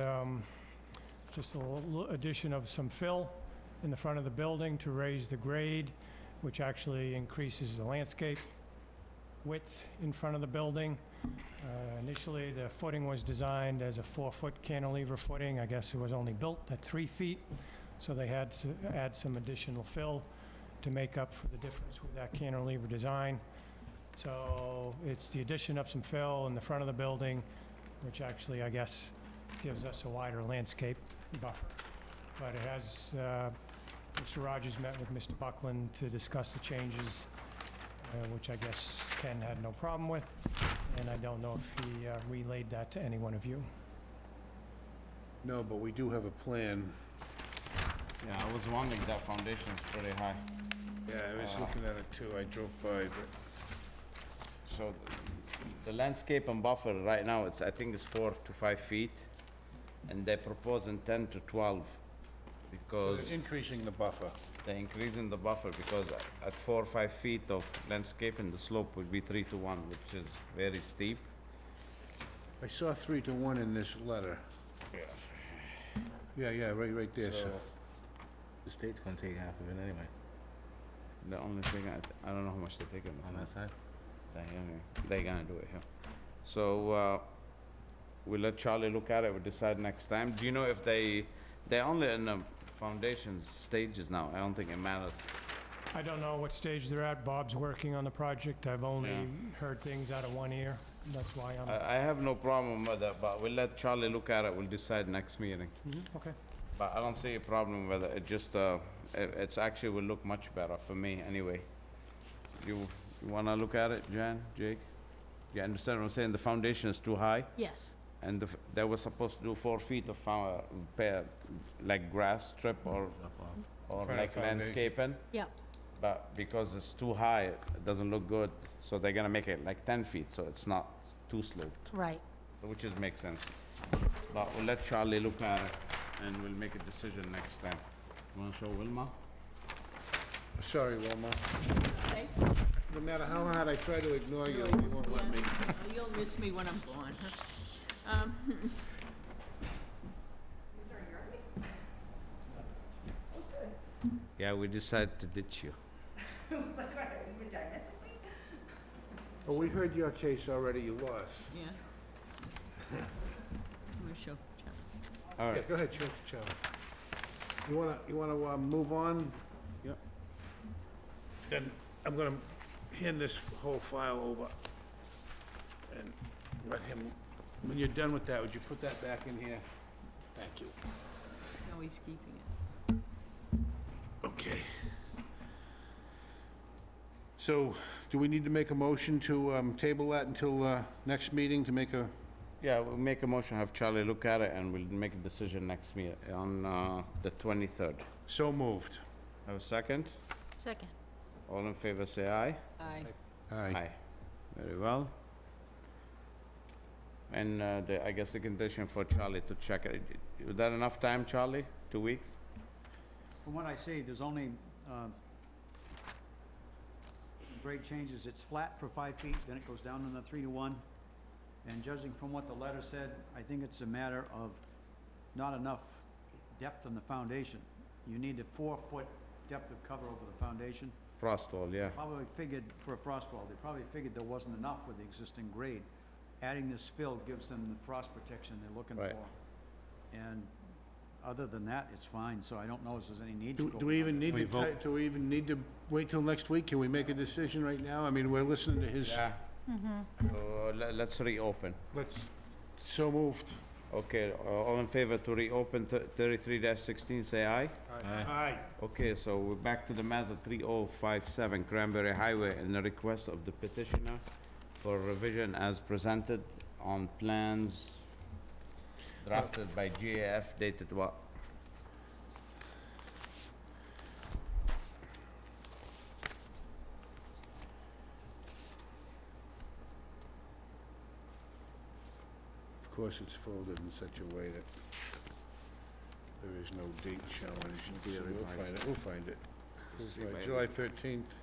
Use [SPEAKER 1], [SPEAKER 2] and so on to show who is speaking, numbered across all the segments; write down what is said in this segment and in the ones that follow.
[SPEAKER 1] um, just a little addition of some fill in the front of the building to raise the grade, which actually increases the landscape width in front of the building. Uh, Initially, the footing was designed as a four-foot cantilever footing. I guess it was only built at three feet, so they had to add some additional fill to make up for the difference with that cantilever design. So it's the addition of some fill in the front of the building, which actually, I guess, gives us a wider landscape buffer. But it has, uh, Mr. Rogers met with Mr. Buckland to discuss the changes, uh, which I guess Ken had no problem with, and I don't know if he uh, relayed that to any one of you.
[SPEAKER 2] No, but we do have a plan.
[SPEAKER 3] Yeah, I was wondering, that foundation is pretty high,
[SPEAKER 2] Yeah, I was looking at it too, I drove by, but
[SPEAKER 3] so th- the landscape and buffer right now, it's, I think it's four to five feet, and they're proposing ten to twelve, because
[SPEAKER 2] it's increasing the buffer.
[SPEAKER 3] they're increasing the buffer, because a- at four, or five feet of landscaping, the slope would be three to one, which is very steep.
[SPEAKER 2] I saw three to one in this letter. Yeah, yeah, right, right there, so.
[SPEAKER 4] The state's gonna take half of it anyway,
[SPEAKER 3] The only thing, I, th- I don't know how much they're taking.
[SPEAKER 4] on
[SPEAKER 3] from
[SPEAKER 4] that side.
[SPEAKER 3] They're gonna- They're gonna do it, yeah. So, uh, we'll let Charlie look at it, we'll decide next time. Do you know if they, they're only in the foundation stages now, I don't think it matters.
[SPEAKER 1] I don't know what stage they're at. Bob's working on the project. I've only
[SPEAKER 3] Yeah. Uh,
[SPEAKER 1] heard things out of one ear. That's why
[SPEAKER 3] I,
[SPEAKER 1] I'm,
[SPEAKER 3] I have no problem with that, but we'll let Charlie look at it, we'll decide next meeting.
[SPEAKER 1] okay.
[SPEAKER 3] But I don't see a problem with it, it just, uh, it, it's actually will look much better for me, anyway. You, you wanna look at it, Jan, Jake? You understand what I'm saying, the foundation is too high?
[SPEAKER 5] Yes,
[SPEAKER 3] And the f- they were supposed to do four feet of, uh, pair, like grass strip or, or
[SPEAKER 2] Front of
[SPEAKER 3] like
[SPEAKER 2] foundation.
[SPEAKER 3] landscaping,
[SPEAKER 5] yep,
[SPEAKER 3] but because it's too high, it doesn't look good, so they're gonna make it like ten feet, so it's not too sloped,
[SPEAKER 5] right.
[SPEAKER 3] which is, makes sense. But we'll let Charlie look at it, and we'll make a decision next time. Wanna show Wilma?
[SPEAKER 2] Sorry, Wilma.
[SPEAKER 6] Okay.
[SPEAKER 2] No matter how hard I try to ignore you, you won't let me.
[SPEAKER 6] Yeah. You'll miss me when I'm gone. Um,
[SPEAKER 3] Yeah, we decided to ditch you.
[SPEAKER 2] Oh, we heard your case already, you lost.
[SPEAKER 6] yeah. Where's your check?
[SPEAKER 3] All
[SPEAKER 2] Yeah,
[SPEAKER 3] right,
[SPEAKER 2] go ahead, Charlie, Charlie. You wanna, you wanna, uh, move on?
[SPEAKER 3] Yep.
[SPEAKER 2] Then I'm gonna hand this whole file over and let him, when you're done with that, would you put that back in here? Thank you.
[SPEAKER 6] No, he's keeping it.
[SPEAKER 2] Okay. So, do we need to make a motion to, um, table that until, uh, next meeting to make a,
[SPEAKER 3] yeah, we'll make a motion, have Charlie look at it, and we'll make a decision next meet, on, uh, the twenty-third.
[SPEAKER 2] so moved?
[SPEAKER 3] Have a second?
[SPEAKER 5] Second.
[SPEAKER 3] All in favor, say aye.
[SPEAKER 6] Aye.
[SPEAKER 2] Aye.
[SPEAKER 3] Very well. And uh, the, I guess the condition for Charlie to check it, is that enough time, Charlie? Two weeks?
[SPEAKER 7] From what I see, there's only, um, great changes. It's flat for five feet, then it goes down to the three to one. And judging from what the letter said, I think it's a matter of not enough depth on the foundation. You need a four-foot depth of cover over the foundation.
[SPEAKER 3] Frost wall, yeah.
[SPEAKER 7] Probably figured for a frost wall, they probably figured there wasn't enough with the existing grade. Adding this fill gives them the frost protection they're looking
[SPEAKER 3] Right.
[SPEAKER 7] for. And other than that, it's fine, so I don't know if there's any need to
[SPEAKER 2] Do
[SPEAKER 7] go.
[SPEAKER 2] do we even need
[SPEAKER 3] We
[SPEAKER 2] to, ti-
[SPEAKER 3] vote.
[SPEAKER 2] do we even need to wait till next week? Can we make a decision right now? I mean, we're listening to his,
[SPEAKER 3] Yeah. So uh, le- let's reopen.
[SPEAKER 2] let's, so moved.
[SPEAKER 3] Okay, uh, all in favor to reopen thirty-three sixteen, say aye.
[SPEAKER 2] Aye.
[SPEAKER 3] Okay, so we're back to the matter three oh five seven Cranberry Highway and the request of the petitioner for revision as presented on plans drafted by GAF dated what?
[SPEAKER 2] Of course, it's folded in such a way that there is no date showing. So We'll
[SPEAKER 3] revised.
[SPEAKER 2] find it, we'll find it.
[SPEAKER 3] Let's see
[SPEAKER 2] Right,
[SPEAKER 3] if I-
[SPEAKER 2] July 13th,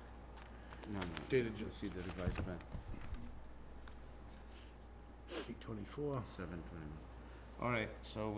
[SPEAKER 3] No, no.
[SPEAKER 2] Dated Ju-
[SPEAKER 3] Let's see the revised plan,
[SPEAKER 2] 824.
[SPEAKER 3] seven twenty-one. All right, so